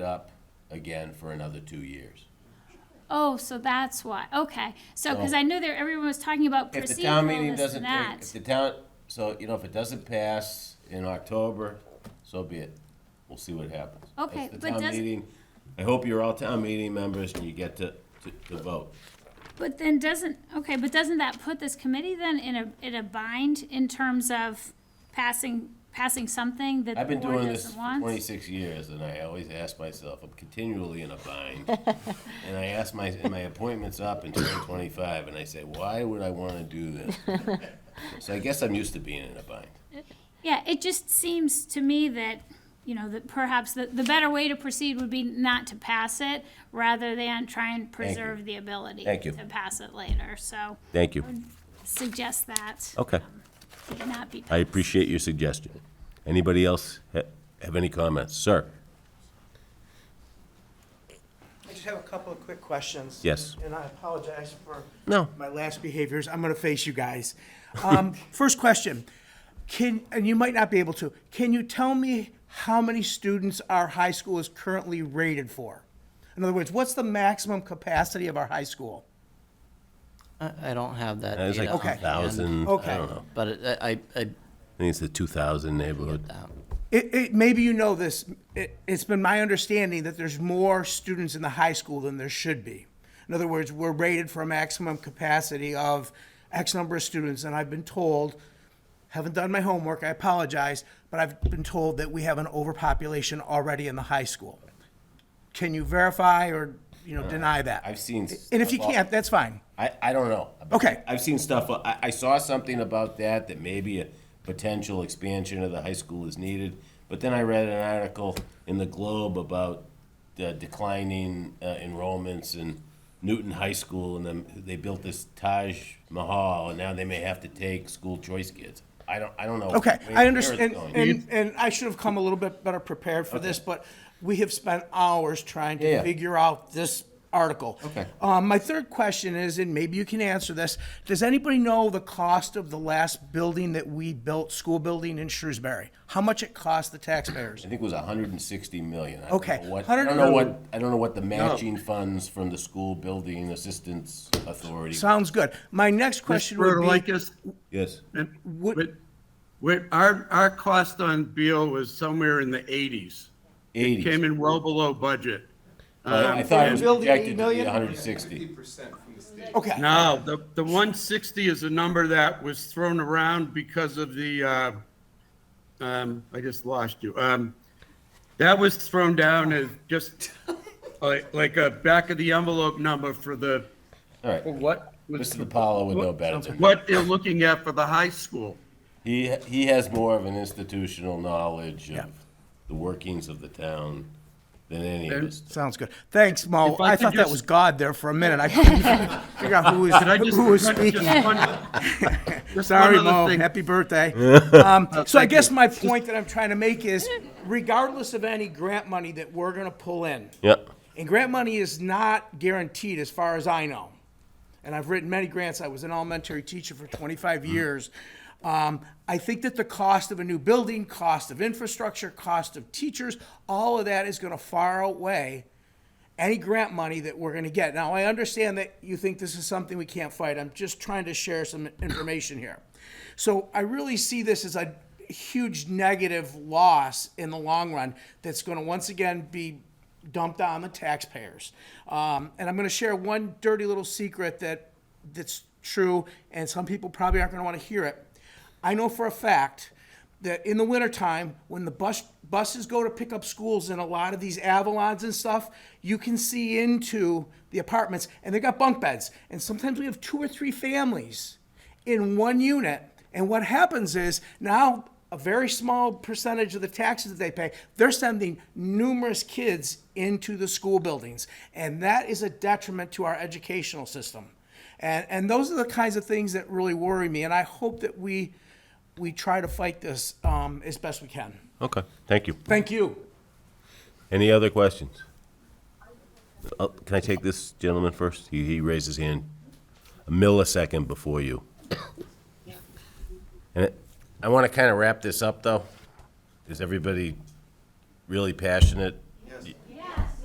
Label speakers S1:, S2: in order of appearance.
S1: again for another two years.
S2: Oh, so that's why. Okay. So, because
S1: So-
S2: I knew there, everyone was talking about
S1: If the town
S2: procedural
S1: meeting
S2: this
S1: doesn't, if-
S2: and that.
S1: if the town, so, you know, if it doesn't pass in October, so be it. We'll see what happens.
S2: Okay,
S1: It's the
S2: but
S1: town
S2: does-
S1: meeting. I hope you're all town meeting members and you get to, to, to vote.
S2: But then doesn't, okay, but doesn't that put this committee then in a, in a bind in terms of passing, passing something that
S1: I've
S2: the
S1: been
S2: board
S1: doing this
S2: doesn't
S1: for
S2: want?
S1: twenty-six years, and I always ask myself, I'm continually in a bind. And I ask my, and my appointment's up in twenty twenty-five, and I say, why would I wanna do this? So I guess I'm used to being in a bind.
S2: Yeah, it just seems to me that, you know, that perhaps the, the better way to proceed would be not to pass it rather than try and preserve the ability
S1: Thank you.
S2: to pass it later. So
S1: Thank you.
S2: suggest that
S1: Okay,
S2: it not be.
S1: I appreciate your suggestion. Anybody else ha- have any comments? Sir?
S3: I just have a couple of quick questions.
S1: Yes.
S3: And I apologize for
S1: No.
S3: my last behaviors. I'm going to face you guys. Um, First question, can, and you might not be able to, can you tell me how many students our high school is currently rated for? In other words, what's the maximum capacity of our high school?
S4: I, I don't have that
S1: It was
S4: data.
S1: Uh, like
S4: on hand,
S1: 2,000, I
S3: Okay.
S1: don't know.
S4: But it- I, I,
S1: I think it's the 2,000 neighborhood.
S4: I-
S3: It, it, maybe you know this, it, it's been my understanding that there's more students in the high school than there should be. In other words, we're rated for a maximum capacity of X number of students, and I've been told, haven't done my homework, I apologize, but I've been told that we have an overpopulation already in the high school. Can you verify or, you know, deny that?
S1: Uh, I've seen.
S3: And if you
S1: stuff all-
S3: can't, that's fine.
S1: I, I don't know.
S3: Okay.
S1: I've seen stuff, uh, I, I saw something about that, that maybe a potential expansion of the high school is needed. But then I read an article in the Globe about the declining uh, enrollments in Newton High School and then they built this Taj Mahal and now they may have to take school choice kids. I don't, I don't know.
S3: Okay,
S1: where- where
S3: I
S1: it's
S3: understand,
S1: going.
S3: and, and I should have come a little bit better prepared for this, but we have spent hours trying
S1: Yeah, yeah.
S3: to figure out this article. Okay. Um, my third question is, and maybe you can answer this, does anybody know the cost of the last building that we built, school building in Shrewsbury? How much it cost the taxpayers?
S1: I think it was hundred and sixty million. I don't
S3: Okay,
S1: know what- I
S3: 100
S1: don't know what, I don't know what the matching funds from the school building assistance authority.
S3: Sounds good. My next question would be.
S5: Rotalakis,
S1: Yes.
S5: and
S3: Would-
S5: with- with- uh, our, our cost on Beal was somewhere in the eighties.
S1: Eighty.
S5: Came in well below budget.
S1: I I thought it was
S3: Building eight
S1: projected to be
S3: million?
S1: hundred and sixty.
S3: Okay.
S5: No, the, the one sixty is a number that was thrown around because of the, uh, um, I just lost you. Um, that was thrown down as just like, like a back of the envelope number for the,
S1: All right,
S5: for what? was-
S1: Mr. DiPaolo would know better than me.
S5: What they're looking at for the high school.
S1: He, he has more of an institutional knowledge of the workings of the town than any of us.
S3: Sounds good. Thanks, Mo.
S5: If I
S3: I
S5: could
S3: thought that
S5: just-
S3: was God there for a minute. I couldn't figure out who was,
S5: Could I just?
S3: who was
S5: just
S3: speaking.
S5: one- just one
S3: Sorry,
S5: other
S3: Mo.
S5: thing.
S3: Happy birthday. Um, so I
S5: thank
S3: guess
S5: you.
S3: my point that I'm trying to make is, regardless of any grant money that we're gonna pull in,
S1: Yep.
S3: and grant money is not guaranteed as far as I know. And I've written many grants. I was an elementary teacher for 25 years. Um, I think that the cost of a new building, cost of infrastructure, cost of teachers, all of that is going to far outweigh any grant money that we're going to get. Now, I understand that you think this is something we can't fight. I'm just trying to share some information here. So I really see this as a huge negative loss in the long run that's going to once again be dumped on the taxpayers. Um, and I'm going to share one dirty little secret that that's true, and some people probably aren't going to want to hear it. I know for a fact that in the wintertime, when the bus buses go to pick up schools in a lot of these Avalons and stuff, you can see into the apartments, and they got bunk beds, and sometimes we have two or three families in one unit. And what happens is now a very small percentage of the taxes that they pay, they're sending numerous kids into the school buildings. And that is a detriment to our educational system. And, and those are the kinds of things that really worry me. And I hope that we, we try to fight this um, as best we can.
S1: Okay, thank you.
S3: Thank you.
S1: Any other questions? Uh, Can I take this gentleman first? He, he raised his hand a millisecond before you. And it- I want to kind of wrap this up, though. Is everybody really passionate